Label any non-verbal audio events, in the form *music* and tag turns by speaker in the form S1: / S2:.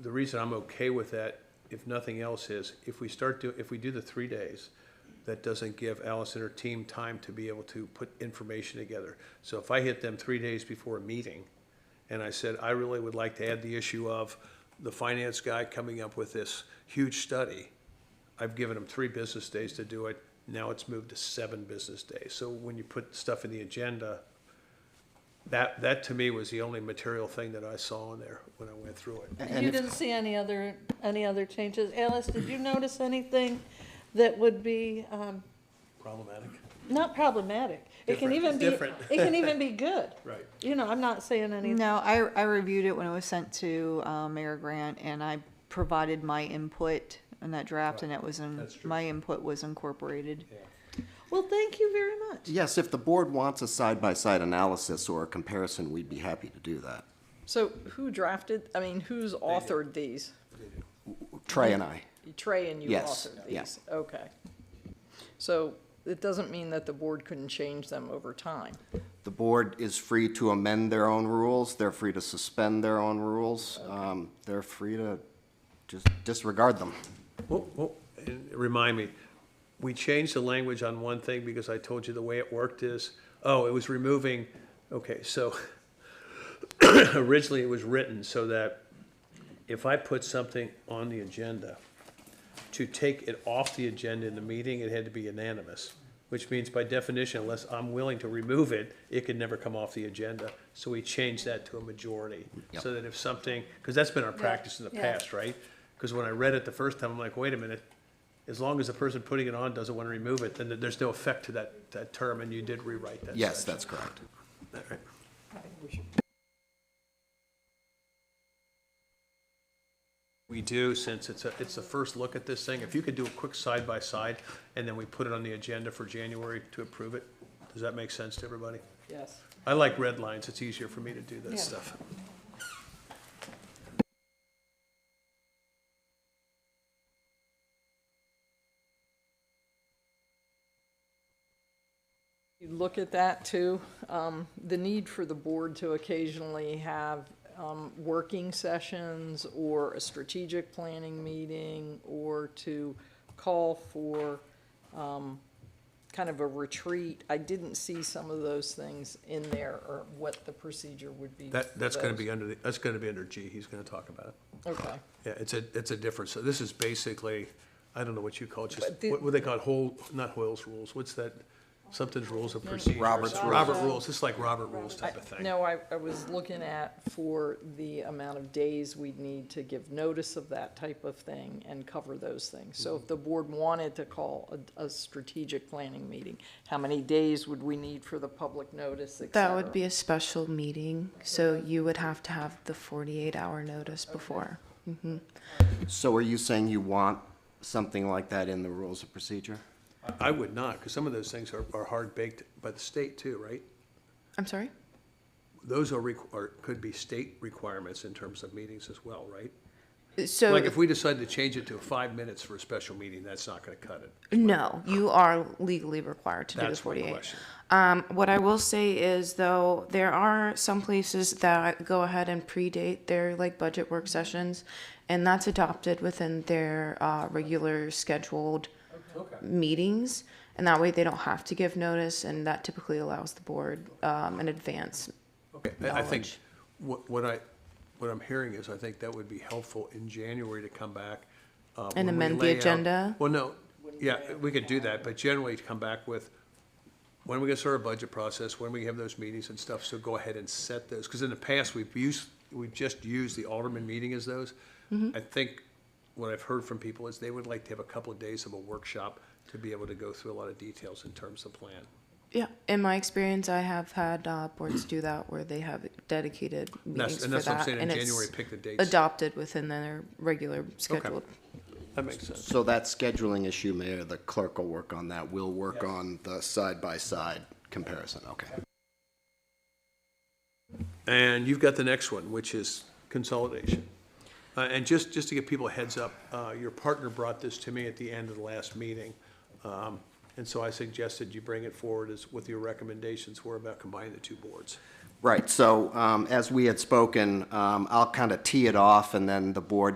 S1: the reason I'm okay with that, if nothing else, is if we start to, if we do the three days, that doesn't give Alice and her team time to be able to put information together. So if I hit them three days before a meeting, and I said, I really would like to add the issue of the finance guy coming up with this huge study, I've given them three business days to do it, now it's moved to seven business days. So when you put stuff in the agenda, that, that to me was the only material thing that I saw in there when I went through it.
S2: You didn't see any other, any other changes. Alice, did you notice anything that would be, um,
S1: Problematic.
S2: not problematic? It can
S1: Different.
S2: even be,
S1: Different.
S2: it
S1: *laughs*
S2: can even be good.
S1: Right.
S2: You know, I'm not saying any,
S3: No, I, I reviewed it when it was sent to uh, Mayor Grant, and I provided my input on that draft, and it was in,
S1: That's true.
S3: my input was incorporated.
S2: well, thank you very much.
S4: Yes, if the board wants a side-by-side analysis or a comparison, we'd be happy to do that.
S5: So who drafted, I mean, who's authored these?
S4: Trey and I.
S5: Trey and you
S4: Yes,
S5: authored
S4: yeah.
S5: these? Okay. So it doesn't mean that the board couldn't change them over time.
S4: The board is free to amend their own rules, they're free to suspend their own rules, um, they're free to just disregard them.
S1: Well, well, and Oh, Remind me, we changed the language on one thing because I told you the way it worked is, oh, it was removing, okay, so *laughs* originally it was written so that if I put something on the agenda, to take it off the agenda in the meeting, it had to be unanimous, which means by definition, unless I'm willing to remove it, it could never come off the agenda. So we changed that to a majority, so that if something, because that's been our practice in the
S2: Yeah.
S1: past, right? Because when I read it the first time, I'm like, wait a minute, as long as the person putting it on doesn't want to remove it, then there's no effect to that, that term, and you did rewrite that.
S4: Yes,
S1: section.
S4: that's correct.
S1: We do, since it's a, it's the first look at this thing, if you could do a quick side by side, and then we put it on the agenda for January to approve it, does that make sense to everybody?
S5: Yes.
S1: I like red lines, it's easier for me to do
S2: Yeah.
S1: that stuff.
S5: You look at that too, um, the need for the board to occasionally have, um, working sessions or a strategic planning meeting or to call for, um, kind of a retreat. I didn't see some of those things in there or what the procedure would be.
S1: That,
S5: for
S1: that's gonna
S5: those.
S1: be under, the that's gonna be under G, he's gonna talk about it.
S5: Okay.
S1: Yeah, it's a, it's a difference, so this is basically, I don't know what you call it, just,
S5: But the-
S1: what, what they call whole, not Hoyle's rules, what's that? Something's rules of procedure.
S4: Robert's rules.
S1: Robert rules, it's like Robert rules type of thing.
S5: No, I, I was looking at for the amount of days we'd need to give notice of that type of thing and cover those things. So
S1: Mm-hmm.
S5: if the board wanted to call a, a strategic planning meeting, how many days would we need for the public notice, et
S6: That would
S5: cetera?
S6: be a special meeting, so you would have to have the 48-hour notice before.
S4: So are you saying you want something like that in the rules of procedure?
S1: I would not, because some of those things are, are hard baked by the state too, right?
S6: I'm sorry?
S1: Those are, requ- or could be state requirements in terms of meetings as well, right?
S6: So,
S1: Like if we decide to change it to five minutes for a special meeting, that's not gonna cut it.
S6: no, you are legally required to do the
S1: That's my
S6: 48.
S1: question.
S6: Um, What I will say is, though, there are some places that go ahead and predate their, like, budget work sessions, and that's adopted within their uh, regular scheduled meetings, and that way they don't have to give notice, and that typically allows the board um, an advance
S1: Okay, I I think,
S6: knowledge.
S1: what, what I, what I'm hearing is, I think that would be helpful in January to come back. uh, when we
S6: amend the
S1: lay out-
S6: agenda?
S1: Well, no, yeah, we could do that, but generally to come back with, when we get started our budget process, when we have those meetings and stuff, so go ahead and set those, because in the past, we've used, we've just used the alderman meeting as those.
S6: Mm-hmm.
S1: I think what I've heard from people is they would like to have a couple of days of a workshop to be able to go through a lot of details in terms of plan.
S6: Yeah, in my experience, I have had uh, boards do that where they have dedicated meetings
S1: and
S6: for
S1: that's what I'm
S6: that,
S1: saying, in
S6: and it's
S1: January, pick the dates.
S6: adopted within their regular scheduled.
S1: That makes sense.
S4: So that scheduling issue, Mayor, the clerk will work on that, we'll work on the side-by-side comparison, okay.
S1: And you've got the next one, which is consolidation. Uh, And just, just to give people a heads up, uh, your partner brought this to me at the end of the last meeting. Um, And so I suggested you bring it forward as what your recommendations were about combining the two boards.
S4: Right, so um, as we had spoken, um, I'll kind of tee it off, and then the board